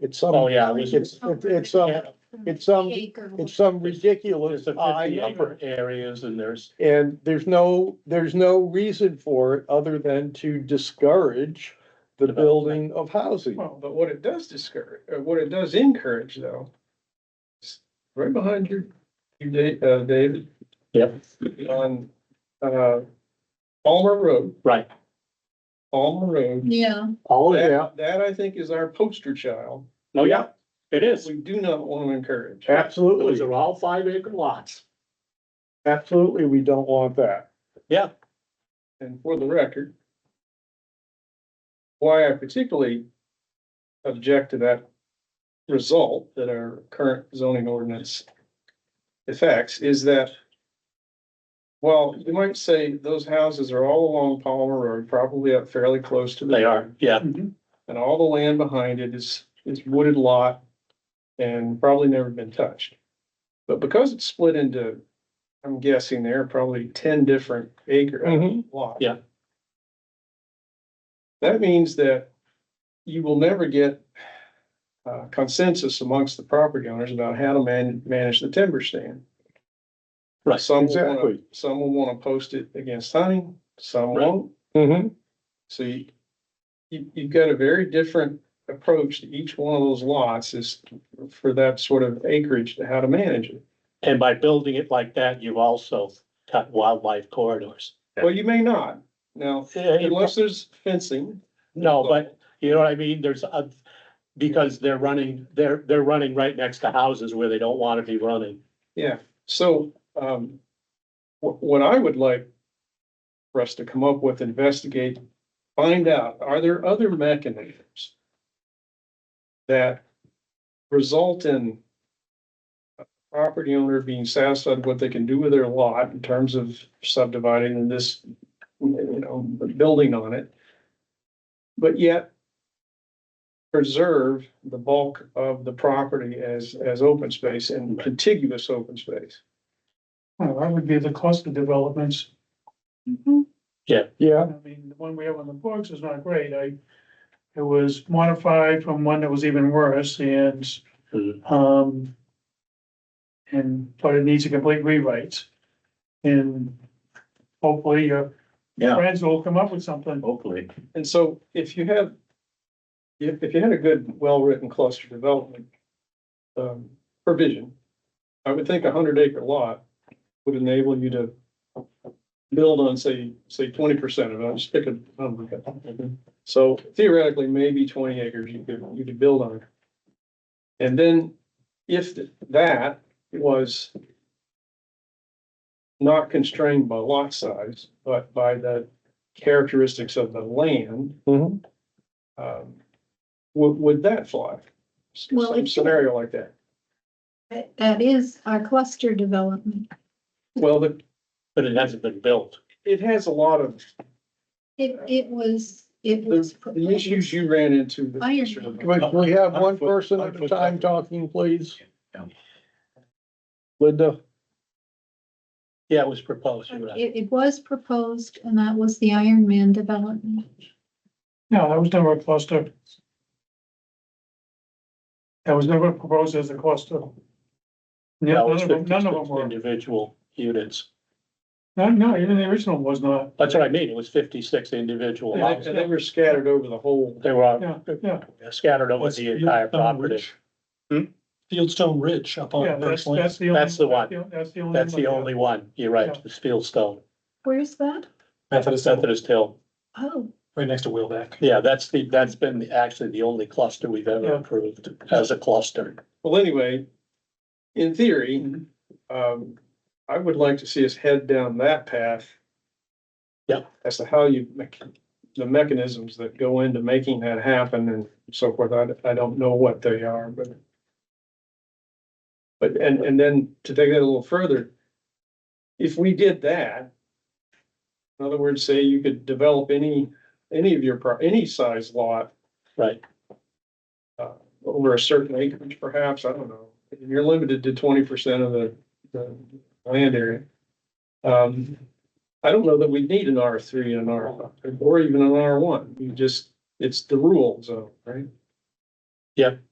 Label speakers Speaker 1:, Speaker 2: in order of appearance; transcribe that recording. Speaker 1: it's some.
Speaker 2: Oh, yeah, we should-
Speaker 1: It's, it's, it's some, it's some, it's some ridiculous
Speaker 2: There's
Speaker 3: Uh,
Speaker 2: a
Speaker 1: high
Speaker 2: fifty
Speaker 1: number.
Speaker 2: upper areas and there's,
Speaker 1: And there's no, there's no reason for it other than to discourage the building of housing.
Speaker 4: Well, but what it does discourage, uh, what it does encourage though. is Right behind your, you, Da- uh, David.
Speaker 2: Yep.
Speaker 4: On, uh, Palmer Road,
Speaker 2: right,
Speaker 4: Palmer Road.
Speaker 5: Yeah.
Speaker 1: Oh, yeah,
Speaker 4: That- That I think is our poster child.
Speaker 2: oh, yeah, it is.
Speaker 4: We do not want to encourage.
Speaker 2: Those
Speaker 1: absolutely,
Speaker 2: are all five acre lots.
Speaker 1: absolutely, we don't want that.
Speaker 4: And for the record. Why I particularly object to that result that our current zoning ordinance affects is that. Well, you might say those houses are all along Palmer Road, probably up fairly close to the.
Speaker 2: They are, yeah,
Speaker 4: And all the land behind it is, is wooded lot and probably never been touched. But because it's split into, I'm guessing there are probably ten different acre
Speaker 1: Mhm.
Speaker 4: lots.
Speaker 2: Yeah.
Speaker 4: That means that you will never get uh, consensus amongst the property owners about how to man, manage the timber stand.
Speaker 2: Right,
Speaker 4: Some will wanna,
Speaker 1: exactly.
Speaker 4: some will wanna post it against hunting, some
Speaker 2: Right. Mm-hmm.
Speaker 4: won't.
Speaker 1: hmm
Speaker 4: So you, you, you've got a very different approach to each one of those lots is for that sort of acreage to how to manage it.
Speaker 2: and by building it like that, you've also cut wildlife corridors.
Speaker 4: Well, you may not. Now,
Speaker 2: Eh,
Speaker 4: unless there's fencing,
Speaker 2: No, but you know what I mean, there's a, because they're running, they're, they're running right next to houses where they don't wanna be running.
Speaker 4: yeah. So, um, what, what I would like for us to come up with, investigate, find out, are there other mechanisms that result in a property owner being satisfied with what they can do with their lot in terms of subdividing and this, you know, building on it, but yet preserve the bulk of the property as, as open space and contiguous open space.
Speaker 3: Well, that would be the cluster developments.
Speaker 5: Mm-hmm.
Speaker 1: yeah,
Speaker 3: I mean, the one we have on the books is not great. I, it was modified from one that was even worse and,
Speaker 2: Mhm.
Speaker 3: um, and, but it needs a complete rewrite. And hopefully your
Speaker 2: Yeah.
Speaker 3: friends will come up with something.
Speaker 2: Hopefully.
Speaker 4: And so if you have, if, if you had a good, well-written cluster development um, provision, I would think a hundred acre lot would enable you to build on, say, say twenty percent of it, I'll just pick a number. So theoretically, maybe twenty acres you could, you could build on. And then if that was not constrained by lot size, but by the characteristics of the land,
Speaker 1: hmm
Speaker 4: um, would, would that fly? S-
Speaker 5: Well,
Speaker 4: Some
Speaker 5: it-
Speaker 4: scenario like that.
Speaker 5: That- That is our cluster development.
Speaker 4: Well, the,
Speaker 2: But it hasn't been built.
Speaker 4: it has a lot of,
Speaker 5: It, it was, it was.
Speaker 4: the, the issues you ran into. the-
Speaker 5: Iron.
Speaker 1: but we have one person at a time talking, please. Linda,
Speaker 2: Yeah, it was proposed, you're right.
Speaker 5: It, it was proposed and that was the Iron Man development.
Speaker 3: No, that was never a cluster. That was never proposed as a cluster. Yeah,
Speaker 2: That was
Speaker 3: none of them, none of them
Speaker 2: 56
Speaker 3: were.
Speaker 2: Individual units.
Speaker 3: No, no, even the original was not.
Speaker 2: That's what I mean, it was fifty-six individual
Speaker 4: And
Speaker 2: lots.
Speaker 4: they- and they were scattered over the whole.
Speaker 2: They were all
Speaker 3: Yeah, yeah,
Speaker 2: scattered over the entire property. Hmm?
Speaker 6: Fieldstone Ridge up
Speaker 3: yeah,
Speaker 6: on
Speaker 3: that's,
Speaker 6: First Lane.
Speaker 3: that's the only.
Speaker 2: That's the one.
Speaker 3: That's the only.
Speaker 2: That's
Speaker 3: one,
Speaker 2: the
Speaker 3: yeah.
Speaker 2: only one, you're right, the Fieldstone,
Speaker 5: Where's that?
Speaker 6: Methodist, Methodist,
Speaker 2: Methodist Hill.
Speaker 5: Oh,
Speaker 6: right next to Wheelback.
Speaker 2: Yeah, that's the, that's been the- actually the only cluster we've ever
Speaker 3: Yeah.
Speaker 2: approved as a cluster.
Speaker 4: Well, anyway, in theory, um, I would like to see us head down that path.
Speaker 2: Yeah.
Speaker 4: As to how you make, the mechanisms that go into making that happen and so forth. I, I don't know what they are, but. But, and, and then to take that a little further, if we did that. In other words, say you could develop any, any of your, pro- any size lot
Speaker 2: Right,
Speaker 4: over a certain acreage perhaps, I don't know. You're limited to twenty percent of the, the land area. Um, I don't know that we need an R three and an R, or even an R one, you just, it's the rule zone, right?
Speaker 2: Yep.